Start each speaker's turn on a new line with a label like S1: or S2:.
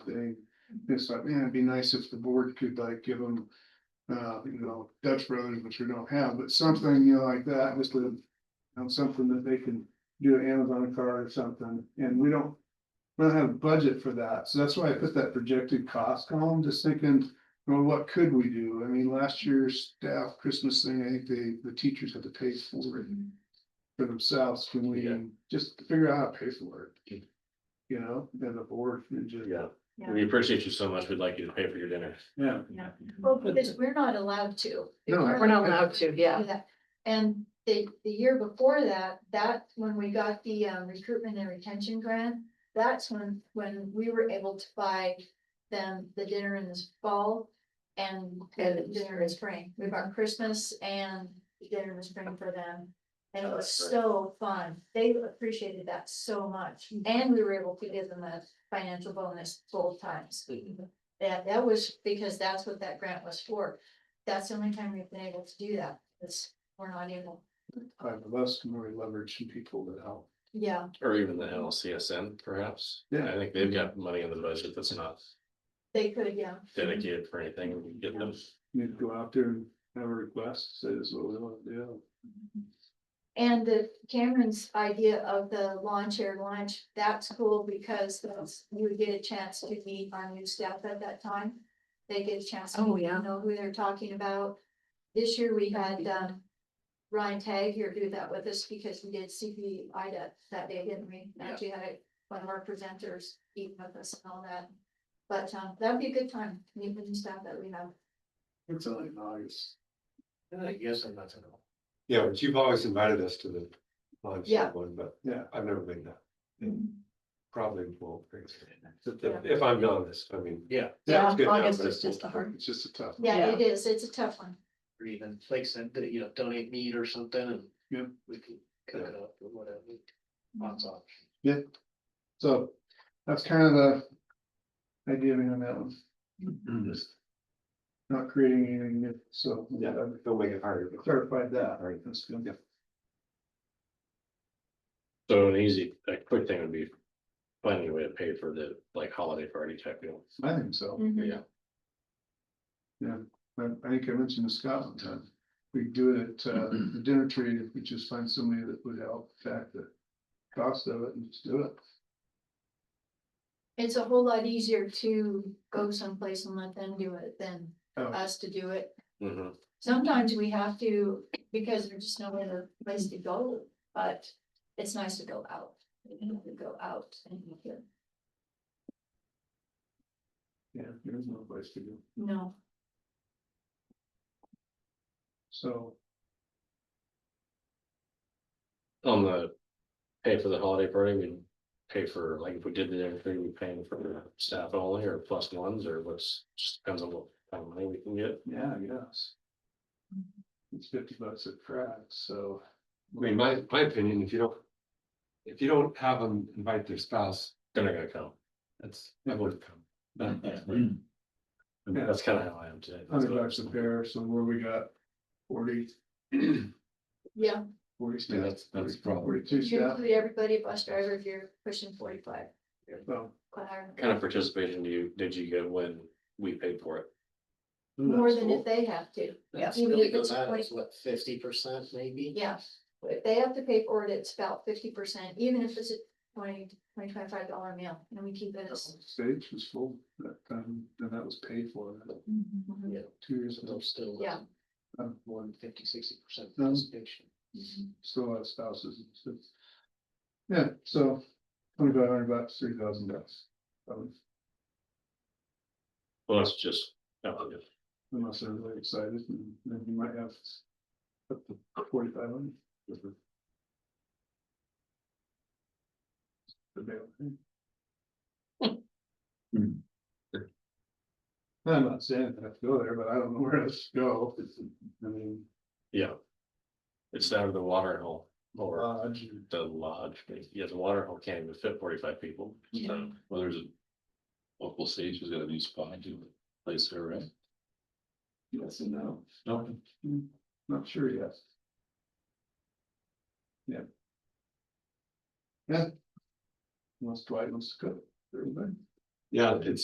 S1: thing. It's like, man, uh, it'd be nice if the board could like give them, uh, you know, Dutch Brothers, which we don't have, but something, you know, like that, just to. you know, something that they can do an Amazon card or something, and we don't, we don't have a budget for that, so that's why I put that projected cost column, just thinking. Well, what could we do? I mean, last year's staff Christmas thing, I think they, the teachers had to pay for it. For themselves, can we
S2: Yeah.
S1: just figure out how to pay for it? You know, and the board, and just.
S2: Yeah,
S3: Yeah,
S2: we appreciate you so much. We'd like you to pay for your dinner.
S1: Yeah.
S3: yeah. Well, because we're not allowed to.
S1: No, I-
S4: We're not allowed to, yeah.
S3: do that. And the, the year before that, that, when we got the um, recruitment and retention grant, that's when, when we were able to buy them the dinner in the fall and the dinner in spring. We bought Christmas and the dinner in spring for them. And it was so fun. They appreciated that so much. And we were able to give them a financial bonus both times. That, that was because that's what that grant was for. That's the only time we've been able to do that, is we're not able,
S1: Five of us can really leverage some people that help.
S3: yeah,
S2: Or even the NLCSN perhaps.
S1: Yeah.
S2: I think they've got money in the budget that's not
S3: they could, yeah.
S2: dedicated for anything. We can Get them.
S1: You need to go out there and have a request, say this is what we want to do.
S3: And the Cameron's idea of the lawn chair lunch, that's cool because that's- you would get a chance to meet our new staff at that time. They get a chance to
S4: Oh,
S3: meet,
S4: yeah.
S3: know who they're talking about. This year we had um Ryan Tag here do that with us because we did CP IDA that day, didn't we? Actually had one of our presenters eat with us and all that. But um that'd be a good time, meet with the staff that we have.
S1: It's only in August.
S2: I guess I'm not.
S5: Yeah, but you've always invited us to the lunch
S3: Yeah.
S5: one, but
S1: Yeah.
S5: I've never been there. Probably won't. bring it.
S3: Yeah.
S5: If I'm being honest, I mean.
S6: Yeah,
S5: that's
S4: Yeah,
S5: good now,
S4: August
S5: but
S4: is just a hard-
S1: It's just a tough.
S3: Yeah, it is, it's a tough one.
S6: or even like said, that, you know, donate meat or something and.
S1: Yeah.
S6: We can cook it up or whatever, lots of options.
S1: So that's kind of the idea behind that one.
S5: Mm-hmm.
S1: Just Not creating anything new, so.
S5: Yeah, don't make it harder.
S1: I Clarified that.
S5: All right.
S1: That's good.
S2: So an easy, a quick thing would be finding a way to pay for the like holiday party type deal.
S1: I think
S3: Mm.
S1: so.
S3: Mm-hmm.
S2: Yeah.
S1: I I think I mentioned to Scott one time. We do it at uh,
S5: Mm-hmm.
S1: the dinner tree, if we just find somebody that would help back the cost of it and just do it.
S3: It's a whole lot easier to go someplace and let them do it than
S1: Oh.
S3: us to do it.
S5: Mm-hmm.
S2: Mhm.
S3: Sometimes we have to, because there's just no other place to go, but it's nice to go out. To go out and you can-
S1: Yeah, there's no place to go.
S3: no,
S1: So,
S2: On the pay for the holiday party, we pay for, like if we did the dinner thing, we paying for staff only or plus ones or what's, just depends on what kind of money we can get.
S1: yeah, I guess. It's fifty bucks a crack, so.
S5: I mean, my, my opinion, if you don't. If you don't have them invite their spouse,
S2: They're not gonna come.
S5: that's, I would come.
S1: Yeah.
S2: That's kind of how I am today. That's
S1: Hundred
S2: what-
S1: bucks a pair, so where we got forty,
S3: yeah,
S1: forty staff.
S5: Yeah, that's, that's probably.
S1: Forty-two
S3: you
S1: staff,
S3: include everybody, bus driver, if you're pushing forty-five.
S1: so.
S3: or higher.
S2: kind of participation do you, did you get when we paid for it?
S3: More than if they have to,
S6: That's
S3: Even
S6: really
S3: if it's
S6: good, that
S3: twenty-
S6: is what, fifty percent maybe?
S3: yeah, if they have to pay for it, it's about fifty percent, even if it's a twenty, twenty, twenty-five dollar meal, and we keep it. as-
S1: Stage was full, that, um, and that was paid for, like,
S6: Yeah,
S1: two years
S6: so
S1: ago,
S6: they'll still.
S3: Yeah.
S1: um,
S6: More than fifty, sixty percent
S1: No.
S6: participation.
S1: still had spouses. and stuff. Yeah, so twenty-five hundred bucks, three thousand bucks. um,
S2: Well, that's just, oh, yeah.
S1: Unless they're really excited, and then you might have up to forty-five hundred. Hmm. I'm not saying I have to go there, but I don't know where else to go. I mean,
S2: yeah. It's down to the water hole or
S1: lodge,
S2: the lodge, but yeah, the water hole can't even fit forty-five people.
S3: Yeah.
S2: Well, there's a local stage has got a new spot to place there, right?
S1: yes and no.
S2: No.
S1: Not sure yet. Yeah. Yeah. Unless Dwight wants to go, everybody.
S5: Yeah, it's